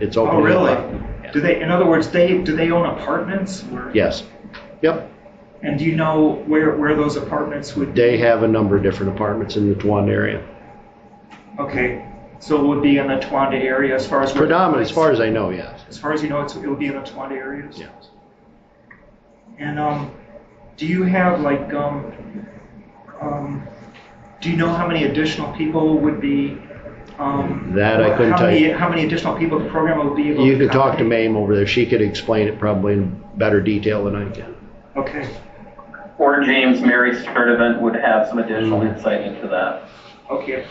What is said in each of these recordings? It's open. Oh, to the really? public. Do they, in other words, they, do they own apartments? or- Yes. Yep. And do you know where, where those apartments would? They have a number of different apartments in the Tuan area. Okay, so it would be in the Twanda area as far as? where- Predominant, as far as I know, yes. As far as you know, it's, it would be in the Twanda areas? Yeah. And, um, do you have like, um, um, do you know how many additional people would be, um? That I couldn't how tell many- you. How many additional people the program would be able to? You could talk to accommodate? Mame over there. She could explain it probably in better detail than I can. Okay, Or James Mary Sturdivant would have some additional Mhm. insight into that. okay.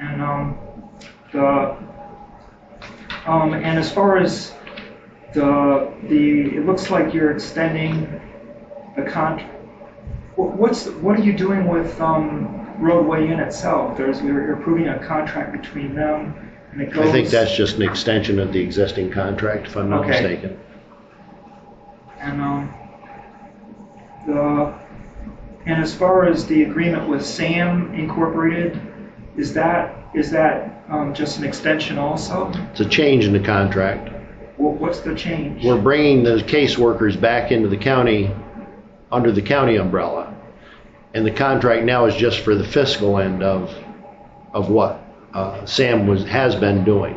And, um, the, um, and as far as the, the, it looks like you're extending the con, wha- what's, what are you doing with, um, roadway in itself? There's, you're you're approving a contract between them and it goes. I think that's just an extension of the existing contract, if I'm not Okay. mistaken. And, um, the, and as far as the agreement with SAM Incorporated, is that, is that, um, just an extension also? It's a change in the contract. Wha- What's the change? We're bringing the caseworkers back into the county, under the county umbrella. And the contract now is just for the fiscal end of, of what uh, Sam was, has been doing.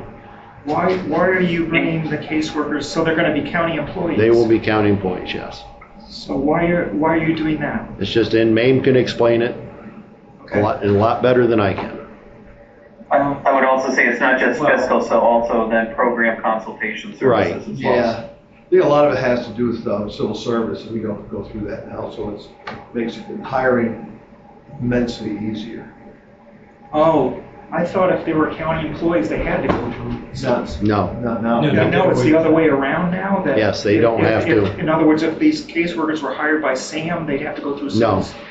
Why, why are you bringing the caseworkers, so they're gonna be county employees? They will be counting points, yes. So why are, why are you doing that? It's just, and Mame can explain it a Okay. lot, a lot better than I can. I I would also say it's not just Well- fiscal, so also then program consultation services as well. Yeah, I think a lot of it has to do with um, civil service, and we don't go through that now, so it's, makes hiring immensely easier. Oh, I thought if they were county employees, they had to go through. Not, No, not now. You know, it's the other way around now that. Yes, they don't if- have if- to. In other words, if these caseworkers were hired by SAM, they'd have to go through. No. civil-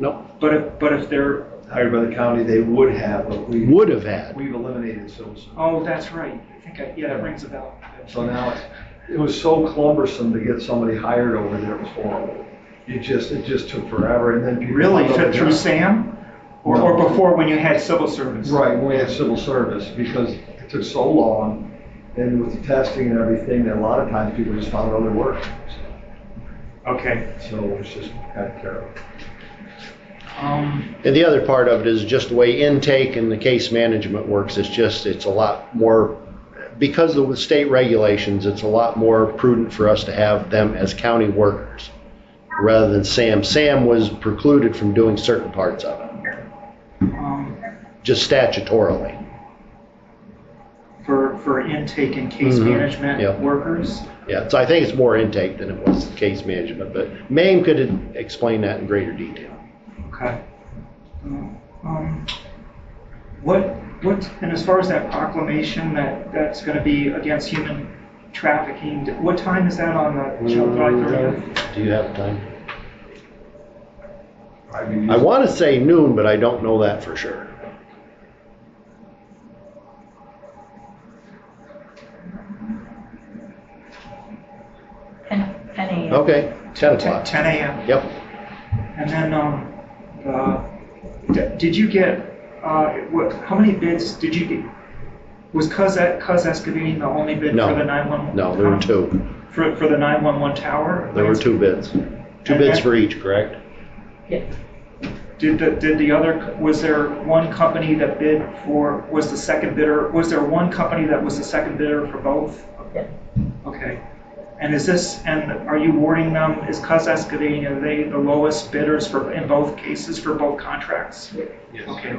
no, But if, but if they're, Hired by the county, they would have, but we, would have had. we've eliminated civil service. Oh, that's right. I think, I yeah, that rings a bell. So now, it's- it was so cumbersome to get somebody hired over there, it was horrible. It just, it just took forever, and then people. Really, Fit through SAM? Or, or No. before when you had civil service? Right, when we had civil service, because it took so long, and with the testing and everything, that a lot of times people just found other work. Okay. So it's just kind of terrible. Um, And the other part of it is just the way intake and the case management works. It's just, it's a lot more, because of the state regulations, it's a lot more prudent for us to have them as county workers rather than Sam. Sam was precluded from doing certain parts of it, um, just statutorily. for, for intake and case Mhm. management Yep. workers? Yeah, so I think it's more intake than it was case management, but Mame could explain that in greater detail. Okay. Um, What, what, and as far as that proclamation that, that's gonna be against human trafficking, what time is that on Mm-hmm. the July thirtieth? Do you have time? I mean, I want to say noon, but I don't know that for sure. Ten, ten AM. Okay, 10 o'clock. Ten AM? Yep. And then, um, uh, d- did you get, uh, what, how many bids did you get? Was Cuz, E, Cuz Excavating the only bid No. for the 911? No, there were two. For, for the 911 tower? There were two bids. Two bids for each, correct? Yeah. Did the, did the other, co- was there one company that bid for, was the second bidder, was there one company that was the second bidder for both? Yeah. Okay. And is this, and are you warning them, is Cuz Excavating, are they the lowest bidders for, in both cases, for both contracts? Okay.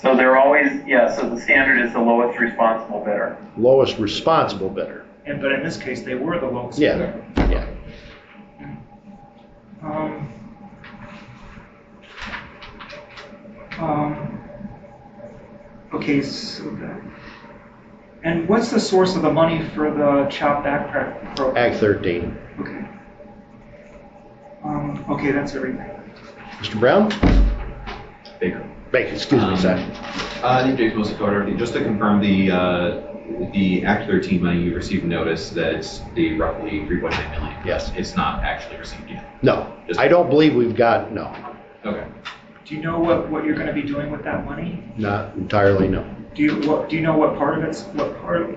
So they're always, yeah, so the standard is the lowest responsible bidder. Lowest responsible bidder. And, but in this case, they were the lowest. Yeah, yeah. Um, um, Okay, so that, and what's the source of the money for the CHOP backpack program? Act 13. Okay. Um, okay, that's everything. Mr. Brown? Baker. Um, Baker, excuse me, sir. Uh, Nick Jacobs, Dakota Revenue. Just to confirm the, uh, the Act 13 money, you received notice that it's the roughly 3.9 million. Yes. It's not actually received yet. No, I don't believe we've got, no, Okay. Do you know what, what you're gonna be doing with that money? not entirely, no. Do you, what, do you know what part of it's, what part,